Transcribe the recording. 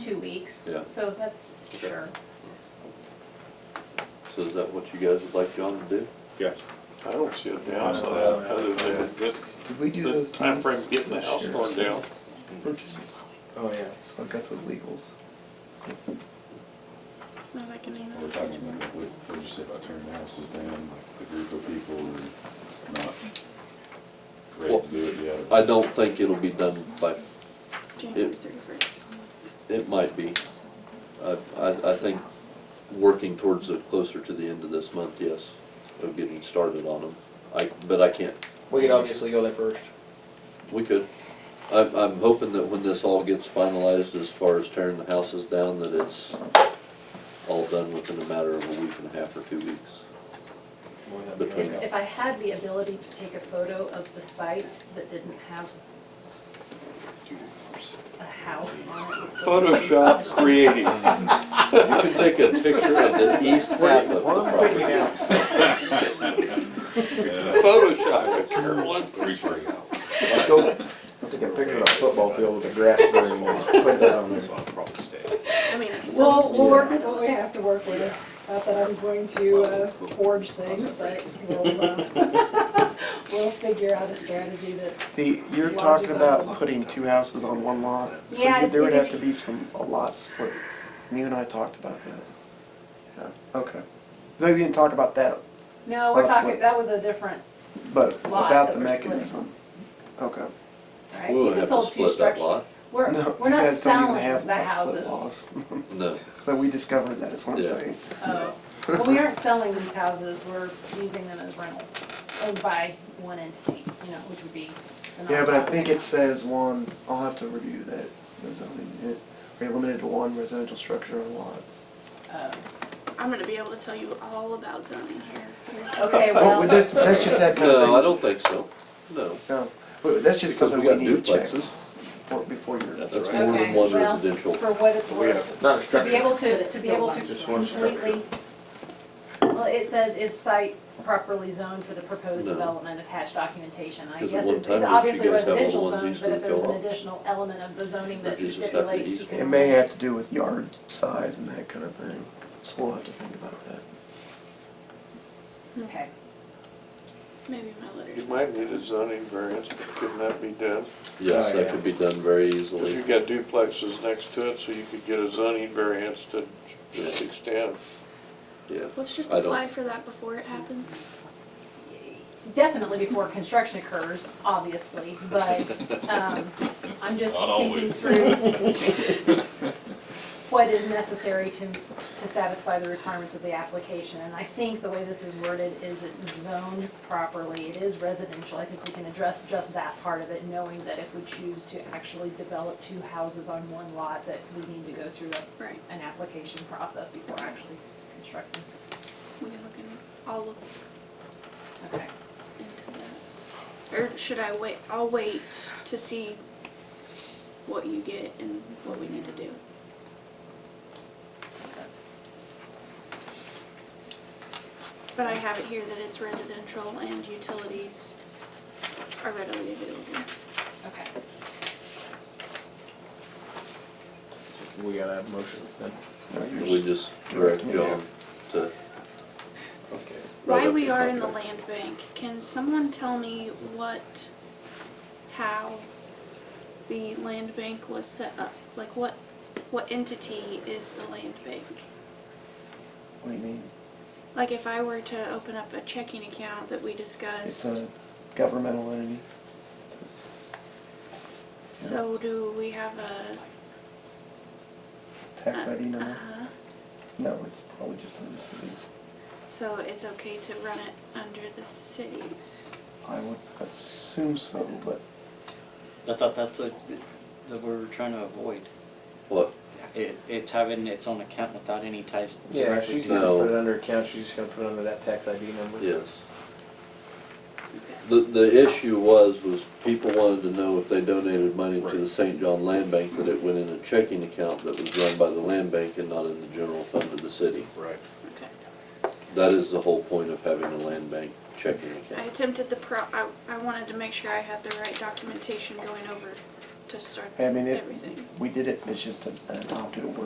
two weeks. Yeah. So that's Okay. sure. So is that what you guys would like John to do? Yes. I don't see a downside other than that Did we do the those time times? frame getting the house torn down. Purchases. Oh, yeah. So I've got the legals. No, that can handle We're it. talking about, what, what did you say about turning houses down, like the group of people who are not ready to do it yet? I don't think it'll be done by, January It- 31st. it might be. I, I, I think working towards the, closer to the end of this month, yes, of getting started on them. I, but I can't, We could obviously go there first. we could. I'm, I'm hoping that when this all gets finalized as far as tearing the houses down, that it's all done within a matter of a week and a half or two weeks. Wouldn't that be Between- okay? If, if I had the ability to take a photo of the site that didn't have a house on it. it's gonna be- Photoshop creating. You can take a picture of the east half of the property. Photoshop, Carolyn. Let's go, take a picture of a football field with a grass green and put that on there. So I'll probably stay. I mean, We'll, we'll work with what we have to work with. Not that I'm going to uh, forge things, but we'll, uh, we'll figure out a strategy that's The, you're Logic talking on the about lot. putting two houses on one lot, so Yeah, you- there would it's- have to be some, a lot split. And You and I talked about that. Yeah, okay. No, we didn't talk about that, No, we're That's talking, what- that was a different, but Lot about that the we're splitting. mechanism. Okay. right? We You wouldn't could have build to two split that structures. lot, We're, No, we're you not guys don't even selling have the lot split houses. laws. no. But we discovered that, is what I'm Yeah. saying. Oh, well, we aren't selling these houses, we're using them as rental, owned by one entity, you know, which would be. the Yeah, but I nonprofit. think it says one, I'll have to review that, the zoning, it, we're limited to one residential structure on a lot. Oh. I'm gonna be able to tell you all about zoning here. Okay, Well, well, that- that's just that kind of thing. No, I don't think so, no. No, but that's just Because something we we got need to check duplexes, before- before you're. that's That's more okay, than one well, residential. for what it's We worth. Not To a be structure. able to, to be able to Just one structure. completely, well, it says is site properly zoned for the proposed No. development, attached documentation. I Because at guess one it's time, it's didn't you obviously guys have all residential ones zone, used but to if there's go an up? additional element of the zoning Or that just have the stipulates you east can. It may have to do with yard size and that kind of thing, so we'll have to think about that. Okay, Maybe my letter. You might need a zoning variance, but couldn't that be done? Yes, Oh, that yeah. could be done very Because you easily. got duplexes next to it, so you could get a zoning variance to just extend. Yeah, Let's just I don't- apply for that before it happens. definitely before construction occurs, obviously, but, um, I'm just Not thinking always. through what is necessary to, to satisfy the requirements of the application. And I think the way this is worded is it's zoned properly, it is residential. I think we can address just that part of it, knowing that if we choose to actually develop two houses on one lot, that we need to go through a- Right. an application process before actually constructing. We can look in, I'll look Okay. into that. Or should I wait? I'll wait to see what you get and what we need to do. that's- But I have it here that it's residential and utilities are readily available. Okay. We got a motion then. No, you're we just- just direct John to, Okay. Right While up we the are top in the there. land bank, can someone tell me what, how the land bank was set up? Like what, what entity is the land bank? What do you mean? Like if I were to open up a checking account that we It's discussed, a governmental entity. It's just- so do we have a? Tax ID number? Uh-huh. No, it's probably just in the cities. So it's okay to run it under the cities? I would assume so, but I thought that's what, that we were trying to avoid. what? It, it's having its own account without any ties Yeah, directly she's to. gonna No. put it under account, she's just gonna put it under that tax ID number. Yes. Okay. The, the issue was, was people wanted to know if they donated money to the St. John Land Bank, that it went in a checking account that was run by the land bank and not in the general fund of the city. Right. Okay. That is the whole point of having a land bank checking I account. attempted the pro, I, I wanted to make sure I had the right documentation going over to start I mean, it- everything. We did it, it's just an adopted word.